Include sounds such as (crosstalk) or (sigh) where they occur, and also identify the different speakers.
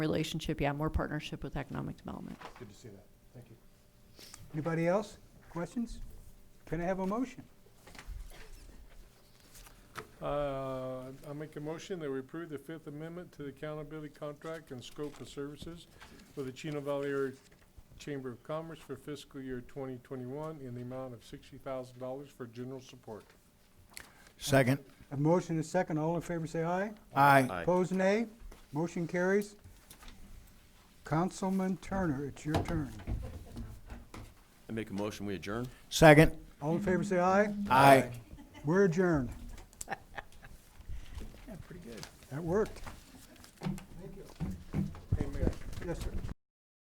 Speaker 1: relationship, yeah, more partnership with economic development.
Speaker 2: Good to see that. Thank you. Anybody else? Questions? Can I have a motion?
Speaker 3: Uh, I make a motion that we approve the Fifth Amendment to the accountability contract and scope of services for the Chino Valley Area Chamber of Commerce for fiscal year 2021 in the amount of $60,000 for general support.
Speaker 4: Second.
Speaker 2: A motion and a second. All in favor, say aye.
Speaker 4: Aye.
Speaker 2: Opposed, nay. Motion carries. Councilman Turner, it's your turn.
Speaker 5: I make a motion, we adjourn.
Speaker 4: Second.
Speaker 2: All in favor, say aye.
Speaker 4: Aye.
Speaker 2: We're adjourned. (laughs)
Speaker 3: Pretty good.
Speaker 2: That worked.
Speaker 3: Hey, Mayor.
Speaker 2: Yes, sir.